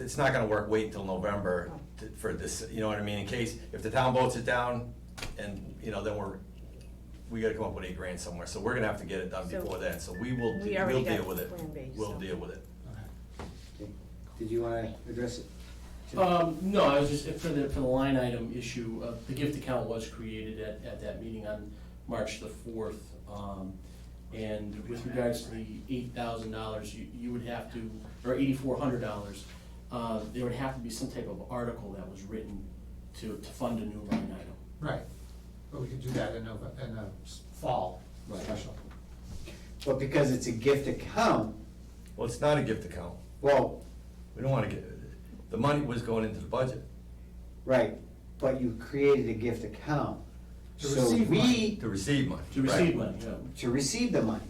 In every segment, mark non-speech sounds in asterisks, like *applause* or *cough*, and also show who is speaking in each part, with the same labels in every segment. Speaker 1: it's not gonna work, wait until November
Speaker 2: Oh.
Speaker 1: to- for this, you know what I mean, in case, if the town votes it down, and, you know, then we're, we gotta come up with eight grand somewhere, so we're gonna have to get it done
Speaker 2: So-
Speaker 1: before then, so we will,
Speaker 2: We
Speaker 1: de-
Speaker 2: already
Speaker 1: we'll
Speaker 2: got
Speaker 1: deal with it.
Speaker 2: Plan B,
Speaker 1: We'll
Speaker 2: so.
Speaker 1: deal with it.
Speaker 3: Okay. Did you wanna address it? Jim?
Speaker 4: Um, no, I was just, for the, for the line item issue, uh, the gift account was created at, at that meeting on March the fourth. Um, and with regards to the eight thousand dollars, you, you would have to, or eighty-four hundred dollars, uh, there would have to be some type of article that was written to, to fund a new line item.
Speaker 5: Right, but we could do that in a, in a s- fall
Speaker 4: Right.
Speaker 5: special.
Speaker 3: But because it's a gift account,
Speaker 1: Well, it's not a gift account,
Speaker 3: well,
Speaker 1: we don't wanna get, the money was going into the budget.
Speaker 3: right, but you created a gift account.
Speaker 5: To
Speaker 3: So
Speaker 5: receive
Speaker 3: we-
Speaker 5: money.
Speaker 1: To receive money.
Speaker 4: To receive
Speaker 1: right.
Speaker 4: money, yeah.
Speaker 3: To receive the money.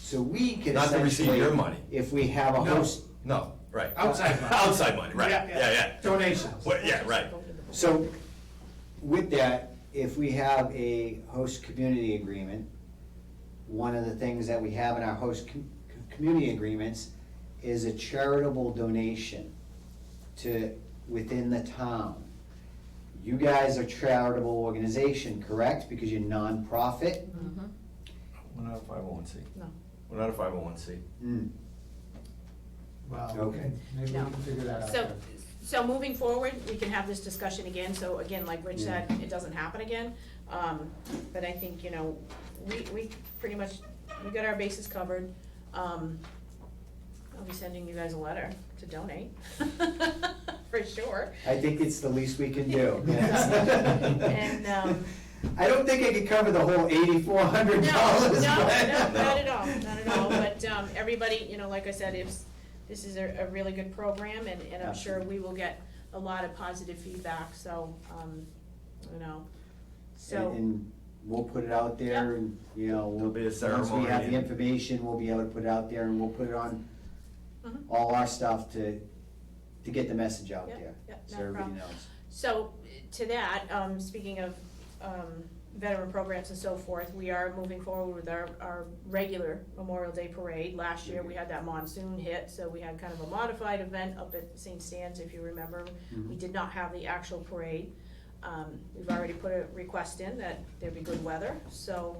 Speaker 3: So we can essentially.
Speaker 1: Not to receive your money.
Speaker 3: If we have a
Speaker 5: No.
Speaker 3: host,
Speaker 1: No, right.
Speaker 5: Outside money.
Speaker 1: *laughs* Outside money, right, yeah, yeah.
Speaker 5: Donations.
Speaker 1: Well, yeah, right.
Speaker 3: So with that, if we have a host community agreement, one of the things that we have in our host com- community agreements is a charitable donation to, within the town. You guys are charitable organization, correct? Because you're nonprofit?
Speaker 2: Mhm.
Speaker 1: We're not a five oh one C.
Speaker 2: No.
Speaker 1: We're not a five oh one C.
Speaker 3: Hmm.
Speaker 5: Well,
Speaker 3: Okay.
Speaker 5: and maybe we
Speaker 2: No.
Speaker 5: can figure that out.
Speaker 2: So,
Speaker 5: then.
Speaker 2: so moving forward, we can have this discussion again, so again, like Rich said, it doesn't happen again. Um, but I think, you know, we, we pretty much, we got our bases covered. Um, I'll be sending you guys a letter to donate, *laughs* for sure.
Speaker 3: I think it's the least we can do.
Speaker 2: *laughs* And, um,
Speaker 3: *laughs* I don't think I could cover the whole eighty-four hundred
Speaker 2: No, no,
Speaker 3: dollars.
Speaker 2: no, not at all, not at all, but, um, everybody, you know, like I said, it's, this is a, a really good program, and, and I'm sure we will get a lot of positive feedback, so, um, you know,
Speaker 3: And-
Speaker 2: so,
Speaker 3: And we'll put it out there and, you know,
Speaker 1: There'll
Speaker 3: we'll,
Speaker 1: be a
Speaker 3: once we have
Speaker 1: ceremony.
Speaker 3: the information, we'll be able to put it out there and we'll put it on
Speaker 2: Mhm.
Speaker 3: all our stuff to, to get the message out
Speaker 2: Yeah,
Speaker 3: there.
Speaker 2: yeah,
Speaker 3: So
Speaker 2: no
Speaker 3: everybody
Speaker 2: problem.
Speaker 3: knows.
Speaker 2: so, to that, um, speaking of, um, veteran programs and so forth, we are moving forward with our, our regular Memorial Day Parade. Last year, we
Speaker 3: Mm-hmm.
Speaker 2: had that monsoon hit, so we had kind of a modified event up at St. Stan's, if you remember, We
Speaker 3: Mhm.
Speaker 2: did not have the actual parade. Um, we've already put a request in that there be good weather, so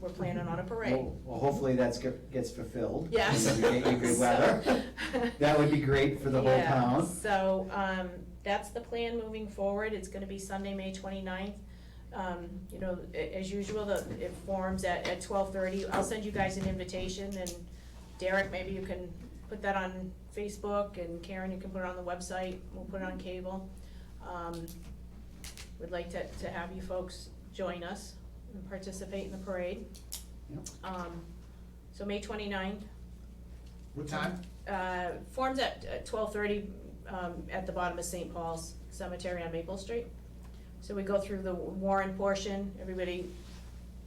Speaker 2: we're planning on a parade.
Speaker 3: Well, well, hopefully that's, get- gets fulfilled. *laughs*
Speaker 2: Yes.
Speaker 3: And we get you
Speaker 2: *laughs*
Speaker 3: good weather.
Speaker 2: So-
Speaker 3: That would be great for the whole
Speaker 2: Yeah,
Speaker 3: town.
Speaker 2: So, um, that's the plan moving forward, it's gonna be Sunday, May twenty-ninth. Um, you know, a- as usual, the, it forms at, at twelve-thirty, I'll send you guys an invitation, and Derek, maybe you can put that on Facebook, and Karen, you can put it on the website, we'll put it on cable. Um, we'd like to, to have you folks join us and participate in the parade.
Speaker 3: Yep.
Speaker 2: Um, so May twenty-ninth,
Speaker 5: What time?
Speaker 2: uh, forms at twelve thirty, um, at the bottom of St. Paul's Cemetery on Maple Street. So we go through the Warren portion, everybody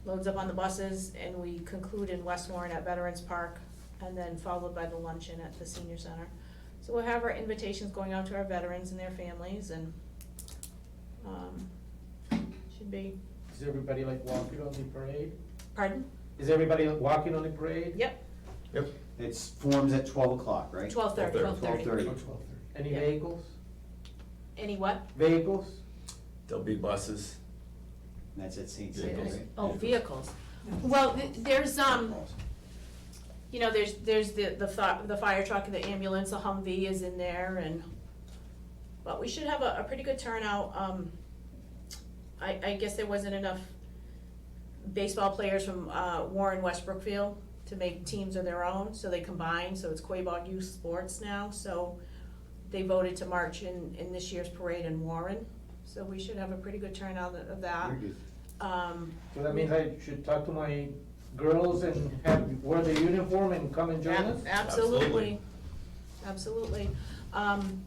Speaker 2: loads up on the buses, and we conclude in West Warren at Veterans Park, and then followed by the luncheon at the senior center. So we'll have our invitations going out to our veterans and their families, and, um, should be,
Speaker 6: Is everybody like walking on the parade?
Speaker 2: pardon,
Speaker 6: Is everybody walking on the parade?
Speaker 2: yep,
Speaker 3: It's forms at twelve o'clock, right?
Speaker 2: twelve thirty.
Speaker 1: 12:30.
Speaker 6: Or
Speaker 5: Oh,
Speaker 3: 12:30.
Speaker 6: twelve thirty? Any
Speaker 2: Yeah.
Speaker 6: vehicles?
Speaker 2: Any what?
Speaker 6: Vehicles?
Speaker 1: There'll be buses.
Speaker 3: And That's at St.
Speaker 1: Vehicles.
Speaker 3: Stephen's, right?
Speaker 2: Oh, vehicles. Well, th- there's, um, you know, there's, there's the, the fi- the fire truck, and the ambulance, the Humvee is in there and, but we should have a, a pretty good turnout, um, I, I guess there wasn't enough baseball players from, uh, Warren West Brookfield to make teams of their own, so they combined, so it's Quabog Youth Sports now, so they voted to march in, in this year's parade in Warren, so we should have a pretty good turnout of that.
Speaker 3: Very good.
Speaker 2: Um,
Speaker 6: So that means I should talk to my girls and have, wear the uniform and come and join us?
Speaker 2: Ab- Absolutely, absolutely. Um,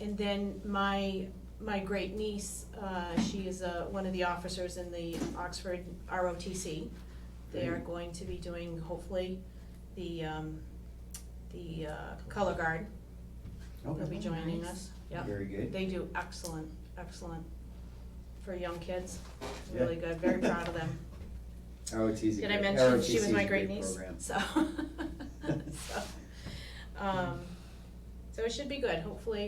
Speaker 2: and then my, my great niece, uh, she is, uh, one of the officers in the Oxford ROTC. They are going to be doing, hopefully, the, um, the, uh, color guard will be
Speaker 3: Okay,
Speaker 2: joining us, yep.
Speaker 3: very good.
Speaker 2: They do excellent, excellent for young kids, really good, very proud of them.
Speaker 3: *laughs* ROTC.
Speaker 2: Did I
Speaker 3: Oh,
Speaker 2: mention she *laughs*
Speaker 3: *laughs*
Speaker 2: was my great niece? So, so, um, So it should be good, hopefully